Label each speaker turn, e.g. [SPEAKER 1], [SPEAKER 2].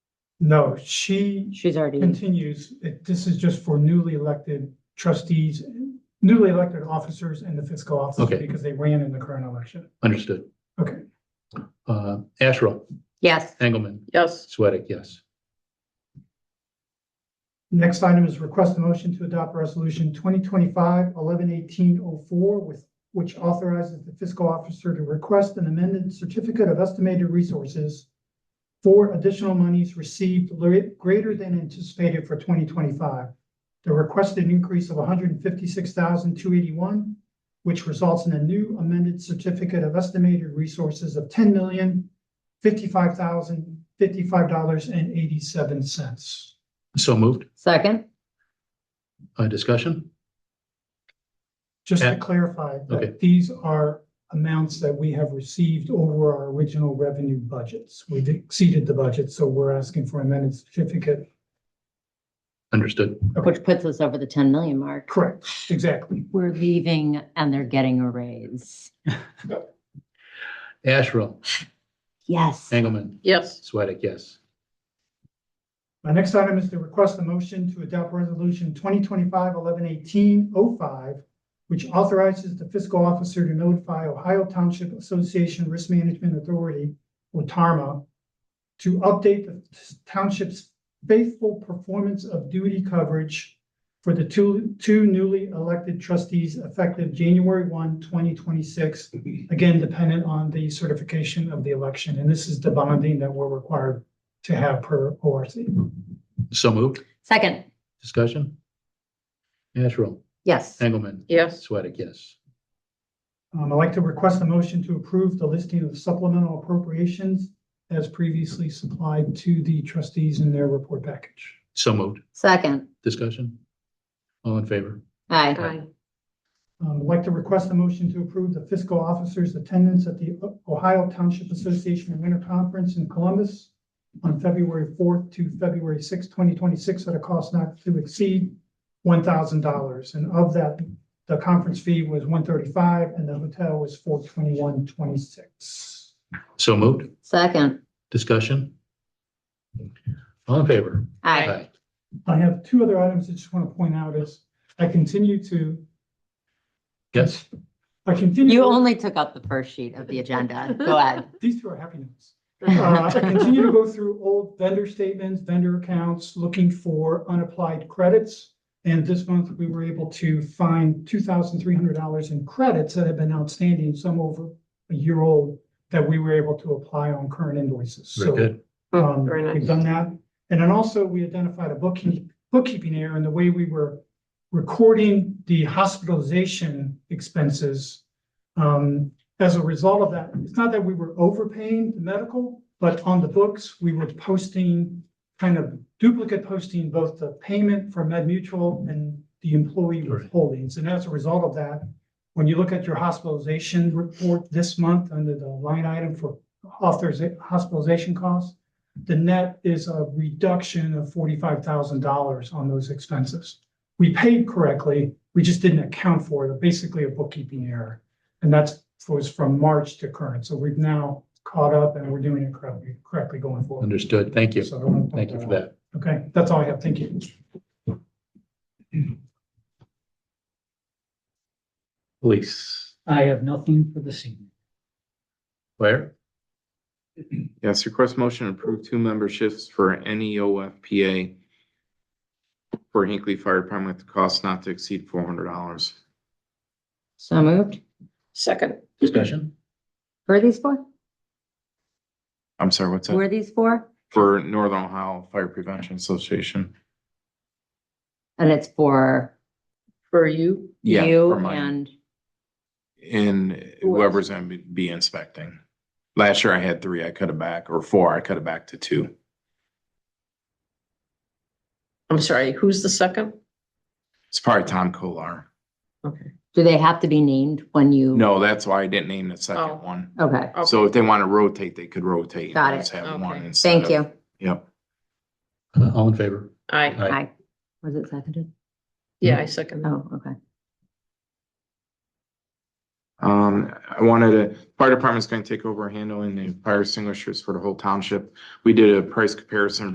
[SPEAKER 1] No, she
[SPEAKER 2] She's already,
[SPEAKER 1] continues, it- this is just for newly elected trustees, newly elected officers and the fiscal officer
[SPEAKER 3] Okay.
[SPEAKER 1] because they ran in the current election.
[SPEAKER 3] Understood.
[SPEAKER 1] Okay.
[SPEAKER 3] Uh, Asherle,
[SPEAKER 2] yes,
[SPEAKER 3] Engelmann,
[SPEAKER 4] yes,
[SPEAKER 3] Sweattick, yes.
[SPEAKER 1] Next item is request a motion to adopt resolution 2025 11 18 oh four with, which authorizes the fiscal officer to request an amended certificate of estimated resources for additional monies received lar- greater than anticipated for twenty twenty-five. The requested increase of 156,281, which results in a new amended certificate of estimated resources of ten million fifty-five thousand fifty-five dollars and eighty-seven cents.
[SPEAKER 3] So moved.
[SPEAKER 2] second,
[SPEAKER 3] Uh, Discussion?
[SPEAKER 1] Just to
[SPEAKER 3] And-
[SPEAKER 1] clarify,
[SPEAKER 3] Okay.
[SPEAKER 1] that these are amounts that we have received over our original revenue budgets. We've exceeded the budget, so we're asking for amended certificate.
[SPEAKER 3] Understood.
[SPEAKER 2] which puts us over the ten million mark.
[SPEAKER 1] Correct, exactly.
[SPEAKER 2] We're leaving and they're getting a raise.
[SPEAKER 3] Asherle,
[SPEAKER 2] Yes,
[SPEAKER 3] Engelmann,
[SPEAKER 4] yes,
[SPEAKER 3] Sweattick, yes.
[SPEAKER 1] My next item is to request a motion to adopt resolution 2025 11 18 oh five, which authorizes the fiscal officer to notify Ohio Township Association Risk Management Authority, or TARMA, to update the township's faithful performance of duty coverage for the two, two newly elected trustees effective January 1, 2026. Again, dependent on the certification of the election, and this is the bonding that we're required to have per ORC.
[SPEAKER 3] So moved.
[SPEAKER 2] second,
[SPEAKER 3] Discussion? Asherle,
[SPEAKER 2] yes,
[SPEAKER 3] Engelmann,
[SPEAKER 4] yes,
[SPEAKER 3] Sweattick, yes.
[SPEAKER 1] Um, I'd like to request a motion to approve the listing of supplemental appropriations as previously supplied to the trustees in their report package.
[SPEAKER 3] So moved.
[SPEAKER 2] second,
[SPEAKER 3] Discussion? All in favor?
[SPEAKER 2] aye,
[SPEAKER 4] aye,
[SPEAKER 1] Um, I'd like to request a motion to approve the fiscal officer's attendance at the Ohio Township Association Winter Conference in Columbus on February fourth to February sixth, twenty twenty-six, at a cost not to exceed one thousand dollars. And of that, the conference fee was one thirty-five and the hotel was four twenty-one twenty-six.
[SPEAKER 3] So moved.
[SPEAKER 2] second,
[SPEAKER 3] Discussion? All in favor?
[SPEAKER 2] aye,
[SPEAKER 1] I have two other items I just want to point out is I continue to,
[SPEAKER 3] Yes?
[SPEAKER 1] I continue.
[SPEAKER 2] you only took up the first sheet of the agenda, go ahead.
[SPEAKER 1] These two are happy notes. Uh, I continue to go through old vendor statements, vendor accounts, looking for unapplied credits. And this month, we were able to find two thousand three hundred dollars in credits that have been outstanding, some over a year old, that we were able to apply on current invoices.
[SPEAKER 3] Very
[SPEAKER 1] So
[SPEAKER 3] good.
[SPEAKER 1] um,
[SPEAKER 4] Hmm, Very nice.
[SPEAKER 1] we've done that. And then also, we identified a bookkeeping, bookkeeping error in the way we were recording the hospitalization expenses. Um, as a result of that, it's not that we were overpaying the medical, but on the books, we were posting kind of duplicate posting both the payment for Med Mutual and the employee
[SPEAKER 3] Right.
[SPEAKER 1] withholdings. And as a result of that, when you look at your hospitalization report this month under the line item for authoriza- hospitalization costs, the net is a reduction of forty-five thousand dollars on those expenses. We paid correctly, we just didn't account for it, basically a bookkeeping error. And that's, was from March to current, so we've now caught up and we're doing it correctly, correctly going forward.
[SPEAKER 3] Understood. Thank you.
[SPEAKER 1] So I wanna point
[SPEAKER 3] Thank you for
[SPEAKER 1] out.
[SPEAKER 3] that.
[SPEAKER 1] Okay, that's all I have, thank you.
[SPEAKER 3] Police.
[SPEAKER 5] I have nothing for this evening.
[SPEAKER 3] Where?
[SPEAKER 6] Yes, request motion to approve two memberships for E NEOFPA for Hinkley Fire Department at the cost not to exceed four hundred dollars.
[SPEAKER 2] So moved,
[SPEAKER 4] second,
[SPEAKER 3] Discussion?
[SPEAKER 2] who are these for?
[SPEAKER 6] I'm sorry, what's
[SPEAKER 2] Who
[SPEAKER 6] that?
[SPEAKER 2] are these for?
[SPEAKER 6] For Northern Ohio Fire Prevention Association.
[SPEAKER 2] And it's for
[SPEAKER 4] for you,
[SPEAKER 6] Yeah,
[SPEAKER 2] you
[SPEAKER 6] for mine.
[SPEAKER 2] and,
[SPEAKER 6] And
[SPEAKER 4] Who else?
[SPEAKER 6] whoever's gonna be- be inspecting. Last year I had three, I cut it back, or four, I cut it back to two.
[SPEAKER 4] I'm sorry, who's the second?
[SPEAKER 6] It's probably Tom Kolar.
[SPEAKER 4] Okay,
[SPEAKER 2] do they have to be named when you?
[SPEAKER 6] No, Uh, that's why I didn't name the
[SPEAKER 4] Oh.
[SPEAKER 6] second one.
[SPEAKER 2] Okay,
[SPEAKER 6] So if they want to rotate, they could rotate.
[SPEAKER 2] Got it.
[SPEAKER 6] Just have
[SPEAKER 4] Okay.
[SPEAKER 6] one instead
[SPEAKER 2] thank
[SPEAKER 6] of-
[SPEAKER 2] you,
[SPEAKER 6] Yep.
[SPEAKER 3] Uh, All in favor?
[SPEAKER 4] I,
[SPEAKER 2] aye, was it seconded?
[SPEAKER 4] yeah, I second,
[SPEAKER 2] Oh, okay,
[SPEAKER 6] Um, I wanted to, fire department's gonna take over handling the fire extinguishers for the whole township. We did a price comparison